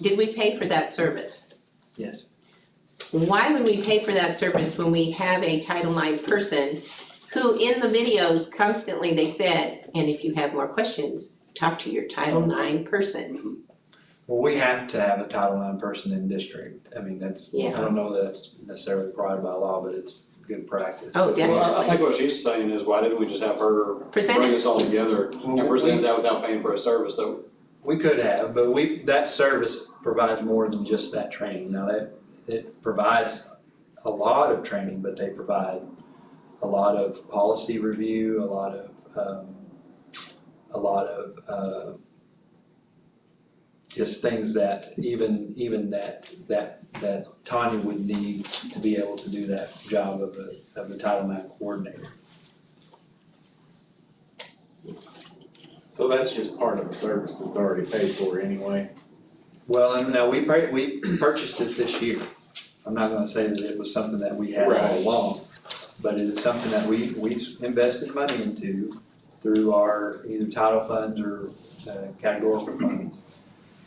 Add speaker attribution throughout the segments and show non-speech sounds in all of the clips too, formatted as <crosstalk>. Speaker 1: Did we pay for that service?
Speaker 2: Yes.
Speaker 1: Why would we pay for that service when we have a Title IX person who in the videos constantly they said, and if you have more questions, talk to your Title IX person.
Speaker 2: Well, we have to have a Title IX person in district. I mean, that's, I
Speaker 1: Yeah.
Speaker 2: don't know that it's necessarily provided by law, but it's good practice.
Speaker 1: Oh,
Speaker 3: Well, I- I
Speaker 1: definitely.
Speaker 3: think what she's saying is, why didn't we just have her
Speaker 1: Present
Speaker 3: bring
Speaker 1: it.
Speaker 3: us all together
Speaker 2: Well,
Speaker 3: and
Speaker 2: we-
Speaker 3: present that without paying for a service though?
Speaker 2: We could have, but we, that service provides more than just that training. Now, that, it provides a lot of training, but they provide a lot of policy review, a lot of, um, a lot of, uh, just things that even, even that, that, that Tanya would need to be able to do that job of a, of a Title IX coordinator.
Speaker 4: So that's just part of the service that's already paid for anyway.
Speaker 2: Well, and now we pur- we purchased it this year. I'm not gonna say that it was something that we had all
Speaker 4: Right.
Speaker 2: along, but it is something that we, we invested money into through our either title funds or uh, categorical funds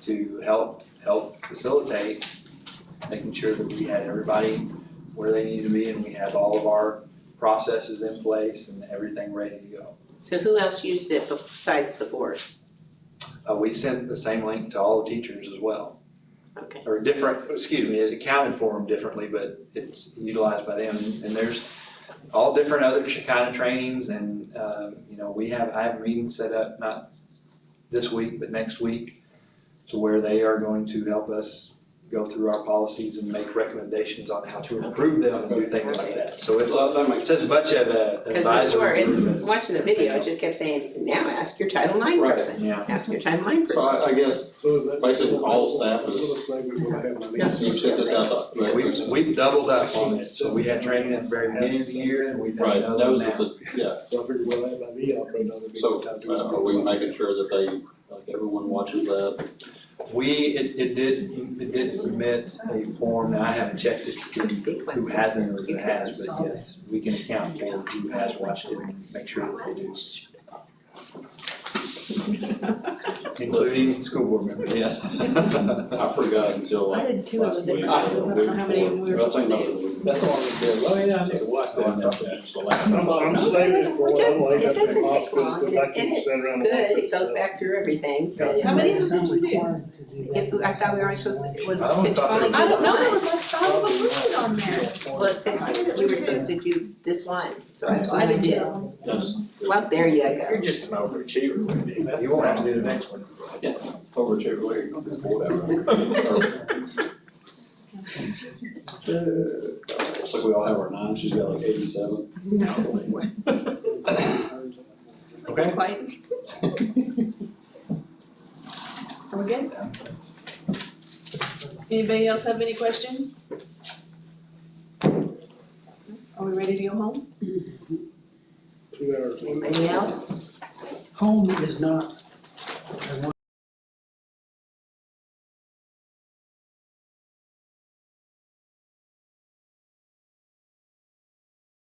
Speaker 2: to help, help facilitate making sure that we had everybody where they needed to be and we have all of our processes in place and everything ready to go.
Speaker 1: So who else used it besides the board?
Speaker 2: Uh, we sent the same link to all the teachers as well.
Speaker 1: Okay.
Speaker 2: or different, excuse me, it accounted for them differently, but it's utilized by them. And there's all different other ch- kind of trainings and, um, you know, we have, I have meetings set up, not this week, but next week, to where they are going to help us go through our policies and make recommendations on how to improve them and do things like that. So it's,
Speaker 3: Well, that makes
Speaker 2: it's as much of a
Speaker 1: Cause before,
Speaker 2: advisory group
Speaker 1: in
Speaker 2: as,
Speaker 1: watching the video, it just kept saying, now ask your Title IX
Speaker 3: Right.
Speaker 1: person,
Speaker 2: yeah.
Speaker 1: ask your Title IX
Speaker 3: So
Speaker 1: person.
Speaker 3: I, I guess
Speaker 5: So is that?
Speaker 3: Basically,
Speaker 5: still-
Speaker 3: all staff
Speaker 5: Little
Speaker 3: is-
Speaker 5: segment will have my
Speaker 1: Yeah.
Speaker 5: name.
Speaker 3: you've sent this out to.
Speaker 2: We've, we've doubled up on it. So we had training at the very beginning of the year and we've had
Speaker 3: Right,
Speaker 2: another
Speaker 3: those
Speaker 2: now.
Speaker 3: are the, yeah,
Speaker 5: So I figured we'll have my me out for another. meeting.
Speaker 3: so
Speaker 5: I'll do it.
Speaker 3: uh, are we making sure that they, like everyone watches that?
Speaker 2: We, it, it did, it did submit a form, now I haven't checked it to see
Speaker 1: Big
Speaker 2: who
Speaker 1: ones.
Speaker 2: hasn't or who has, but yes, we can account for who has watched it and make sure that they do.
Speaker 1: <laughs>
Speaker 2: Including school board members, <laughs> yes.
Speaker 3: I forgot until
Speaker 6: I
Speaker 3: like
Speaker 6: did two of
Speaker 3: last
Speaker 6: them.
Speaker 3: week.
Speaker 6: I don't know how many we were
Speaker 3: Well, I think
Speaker 6: supposed to
Speaker 3: another week.
Speaker 4: That's all we did. Well, yeah, I need to watch that. I thought that's the last
Speaker 5: I'm,
Speaker 4: one.
Speaker 5: I'm saving it for when I'm laid
Speaker 1: It
Speaker 5: up in
Speaker 1: doesn't
Speaker 5: the
Speaker 1: take
Speaker 5: hospital,
Speaker 1: long,
Speaker 5: cause I
Speaker 1: and
Speaker 5: can
Speaker 1: it's
Speaker 5: sit around and watch
Speaker 1: good,
Speaker 5: it.
Speaker 1: it goes back through everything, but it-
Speaker 6: How many of
Speaker 7: them did you do?
Speaker 1: If, I thought we were supposed to, was
Speaker 2: I don't
Speaker 1: it
Speaker 2: thought
Speaker 1: only
Speaker 2: there
Speaker 1: do
Speaker 6: do. I don't know,
Speaker 1: one?
Speaker 6: there was like five of them on there.
Speaker 1: Well, it said that we were supposed to do this one, so that's why I did two.
Speaker 3: Yeah, just
Speaker 1: Well, there you go.
Speaker 4: You're just an overachiever, Wendy. That's
Speaker 2: You won't have to
Speaker 4: the
Speaker 2: do the next one.
Speaker 3: over to everybody, <laughs> whatever. Looks like we all have our nine, she's got like eighty-seven.
Speaker 5: <coughs>
Speaker 2: Okay.
Speaker 1: Quite.
Speaker 6: <laughs> Are we good? Anybody else have any questions? Are we ready to go home?
Speaker 5: Two hours.
Speaker 1: Anybody else?
Speaker 7: Home is not, I want